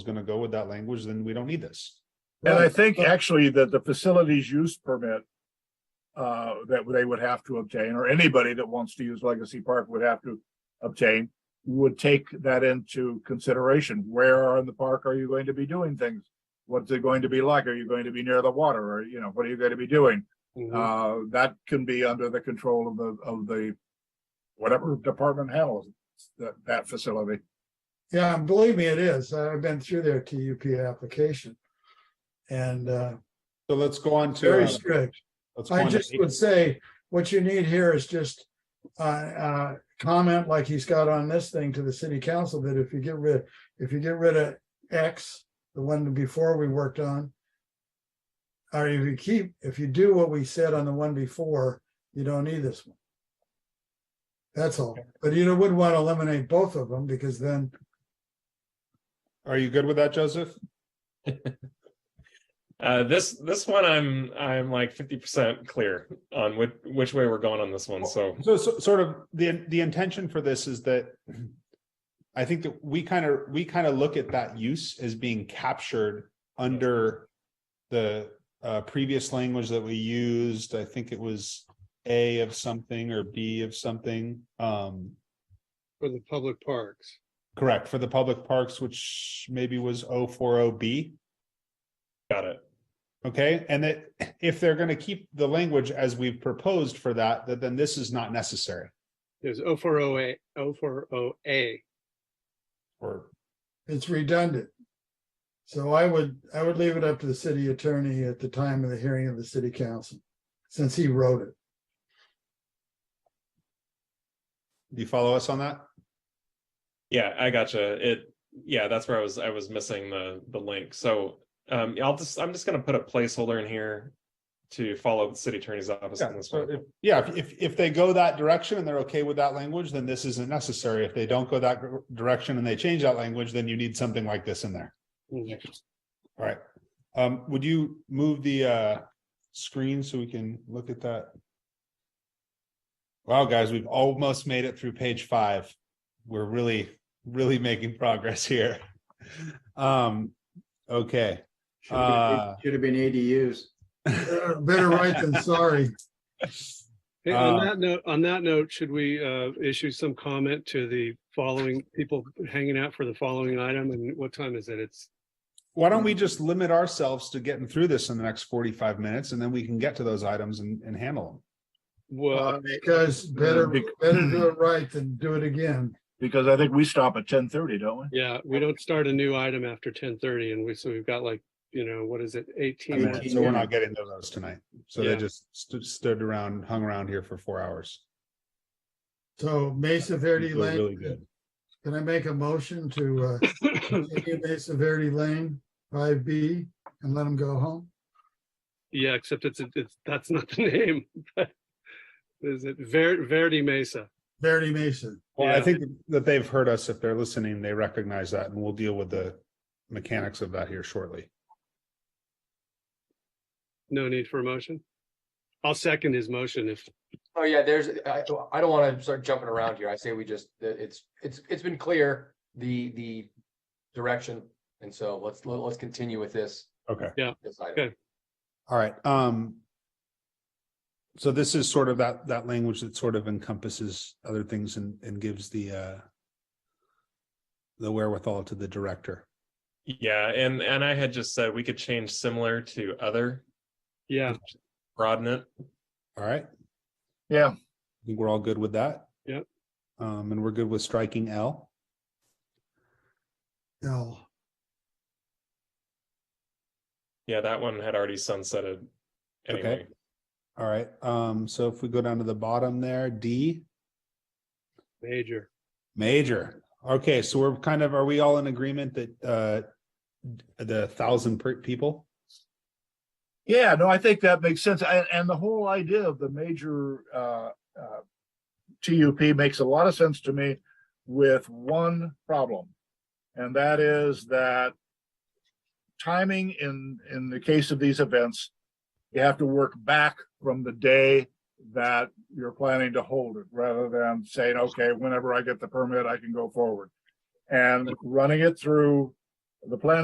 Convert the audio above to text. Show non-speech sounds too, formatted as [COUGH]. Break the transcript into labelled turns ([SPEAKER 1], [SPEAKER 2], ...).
[SPEAKER 1] is gonna go with that language, then we don't need this.
[SPEAKER 2] And I think actually that the facilities use permit uh, that they would have to obtain, or anybody that wants to use Legacy Park would have to obtain, would take that into consideration. Where in the park are you going to be doing things? What's it going to be like? Are you going to be near the water? Or, you know, what are you going to be doing? Uh, that can be under the control of the, of the, whatever department handles that, that facility.
[SPEAKER 3] Yeah, and believe me, it is. I've been through their TUP application. And uh,
[SPEAKER 1] So let's go on to.
[SPEAKER 3] very
[SPEAKER 1] uh,
[SPEAKER 3] strict.
[SPEAKER 1] let's go
[SPEAKER 3] I
[SPEAKER 1] on to
[SPEAKER 3] just
[SPEAKER 1] eight.
[SPEAKER 3] would say, what you need here is just uh, uh, comment like he's got on this thing to the city council that if you get rid, if you get rid of X, the one before we worked on. Or if you keep, if you do what we said on the one before, you don't need this one. That's all. But you wouldn't want to eliminate both of them because then,
[SPEAKER 1] Are you good with that, Joseph?
[SPEAKER 4] Uh, this this one I'm I'm like 50% clear on which which way we're going on this one. So
[SPEAKER 1] So, so sort of the the intention for this is that I think that we kind of we kind of look at that use as being captured under the uh, previous language that we used. I think it was A of something or B of something. Um,
[SPEAKER 5] for the public parks.
[SPEAKER 1] correct for the public parks, which maybe was 040B.
[SPEAKER 4] got it.
[SPEAKER 1] Okay, and that if they're going to keep the language as we've proposed for that, that then this is not necessary.
[SPEAKER 5] There's O four O A, O four O A.
[SPEAKER 1] Or
[SPEAKER 3] it's redundant. So I would, I would leave it up to the city attorney at the time of the hearing of the city council, since he wrote it.
[SPEAKER 1] do you follow us on that?
[SPEAKER 4] Yeah, I gotcha. It yeah, that's where I was I was missing the the link. So um I'll just I'm just gonna put a placeholder in here to follow up the city attorney's office on
[SPEAKER 1] Yeah,
[SPEAKER 4] this
[SPEAKER 1] so
[SPEAKER 4] one.
[SPEAKER 1] if, yeah, if- if, if they go that direction and they're okay with that language, then this isn't necessary. If they don't go that gr- direction and they change that language, then you need something like this in there. All right. Um, would you move the, uh, screen so we can look at that? Wow, guys, we've almost made it through page five. We're really, really making progress here. Um, okay.
[SPEAKER 6] Should have
[SPEAKER 1] Uh,
[SPEAKER 6] been- should have been ADUs.
[SPEAKER 3] Uh, Better right
[SPEAKER 1] [LAUGHS]
[SPEAKER 3] than sorry.
[SPEAKER 5] Hey, on
[SPEAKER 1] Uh,
[SPEAKER 5] that note, on that note, should we uh issue some comment to the following people hanging out for the following item and what time is it? It's
[SPEAKER 1] Why don't we just limit ourselves to getting through this in the next forty-five minutes and then we can get to those items and, and handle
[SPEAKER 5] well,
[SPEAKER 3] Uh, Because
[SPEAKER 1] uh,
[SPEAKER 3] better,
[SPEAKER 1] [CLEARS THROAT]
[SPEAKER 3] better do it right than do it again.
[SPEAKER 2] Because I think we stop at ten thirty, don't we?
[SPEAKER 5] yeah, we don't start a new item after ten thirty and we, so we've got like, you know, what is it, eighteen
[SPEAKER 6] Yeah.
[SPEAKER 1] them.
[SPEAKER 5] minutes?
[SPEAKER 1] And So we're not getting to those tonight. So they
[SPEAKER 5] Yeah.
[SPEAKER 1] just stood, stood around, hung around here for four hours.
[SPEAKER 3] So Mesa Verde
[SPEAKER 1] It was Really
[SPEAKER 3] Lane,
[SPEAKER 1] good.
[SPEAKER 3] can I make a motion to uh, continue Mesa Verde Lane five B and let them go home?
[SPEAKER 5] [COUGHS] Yeah, except it's, it's, that's not the [LAUGHS] name. but Is it Ver- Verdi Mesa?
[SPEAKER 3] Verde Mesa.
[SPEAKER 1] Well, I
[SPEAKER 5] Yeah.
[SPEAKER 1] think that they've heard us. If they're listening, they recognize that and we'll deal with the mechanics of that here shortly.
[SPEAKER 5] No need for a motion? I'll second his motion if
[SPEAKER 7] Oh, yeah, there's, I, I don't wanna start jumping around here. I say we just, it's, it's, it's been clear, the, the direction. And so let's, let's continue with this.
[SPEAKER 1] Okay.
[SPEAKER 7] this item.
[SPEAKER 5] Okay.
[SPEAKER 1] All right, um. So this is sort of that, that language that sort of encompasses other things and, and gives the, uh. The wherewithal to the director.
[SPEAKER 4] Yeah, and and I had just said we could change similar to other,
[SPEAKER 5] Yeah,
[SPEAKER 4] broaden it.
[SPEAKER 1] All right,
[SPEAKER 2] Yeah,
[SPEAKER 1] I think we're all good with that.
[SPEAKER 5] Yep.
[SPEAKER 1] Um, and we're good with striking L.
[SPEAKER 3] No,
[SPEAKER 4] Yeah, that one had already sunsetted
[SPEAKER 1] Okay.
[SPEAKER 4] anyway.
[SPEAKER 1] All right, um, so if we go down to the bottom there, D,
[SPEAKER 5] major.
[SPEAKER 1] major. Okay, so we're kind of, are we all in agreement that, uh, the thousand per people?
[SPEAKER 2] yeah, no, I think that makes sense. And, and the whole idea of the major, uh, uh, TUP makes a lot of sense to me with one problem. And that is that timing in, in the case of these events, you have to work back from the day that you're planning to hold it rather than saying, okay, whenever I get the permit, I can go forward. And running it through the planning